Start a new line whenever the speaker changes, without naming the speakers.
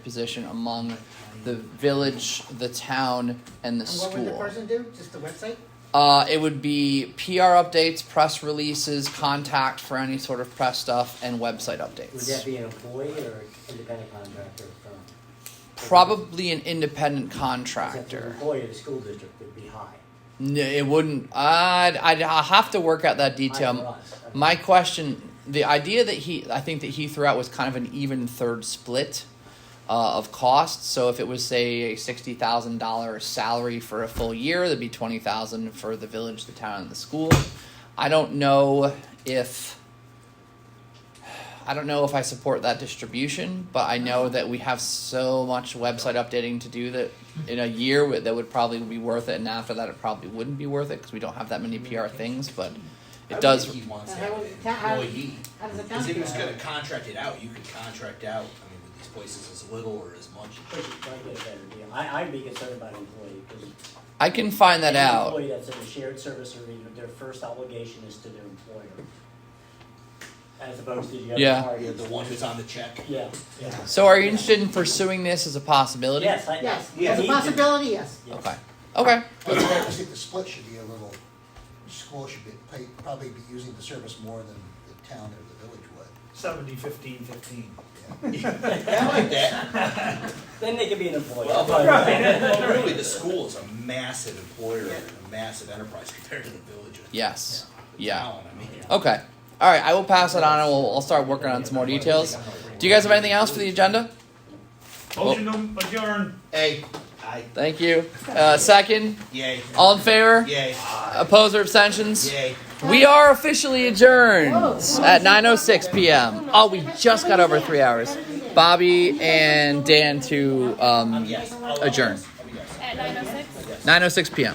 position among the village, the town, and the
And what would the
school.
person do? Just the website?
Uh, it would be PR updates, press releases, contact for any sort of press stuff, and website
Would that
updates.
be an employee or independent contractor firm?
Probably an independent
Since an
contractor.
employee of the school district would be high.
N- It wouldn't. I'd, I'd I'll have to work out that
High for
detail.
us. Okay.
My question, the idea that he, I think that he threw out was kind of an even third split uh, of costs. So if it was say a sixty thousand dollar salary for a full year, that'd be twenty thousand for the village, the town, and the school. I don't know if. I don't know if I support that distribution, but I know that we have so much website updating to do that in a year w- that would probably be worth it, and after that it probably wouldn't be worth it because we don't have that many PR things. But
I
it
would
does.
think He wants
How would-
that
how-
employee.
How does it
Because if he was
count?
gonna contract it out, you could contract out, I mean, with these places as little or as much.
Which is probably a better deal. I, I'd be concerned about employee because.
I can find that out.
Employee that's in a shared service arena, their first obligation is to their employer. As opposed to the
Yeah.
other party.
The one who's on the check.
Yeah, yeah.
So, are you interested in pursuing this as a possibility?
Yes, I.
Yes,
yeah,
as a
he did.
possibility, yes.
Yes.
Okay. Okay.
But I think the split should be a little, school should be, pay- probably be using the service more than the town or the village would.
Seventy, fifteen, fifteen.
I like that.
Then they could be an employee.
Well, but, well, really, the school is a massive employer,
Yeah.
a massive enterprise compared to the village. or
Yes.
the
Yeah.
town, I mean.
Okay. All right. I will pass it on, and we'll, I'll start working on some more details. Do you guys have anything else for the agenda?
Motion to adjourn.
Hey, I,
Thank you. Uh, second.
yay,
All in favor?
yay,
Opposed or abstentions?
yay.
We are officially adjourned at 9:06 p.m. Oh, we just got over three hours. Bobby and Dan to um,
Yes. I'll- I'll-
adjourn.
I'll be yes.
906?
9:06 p.m.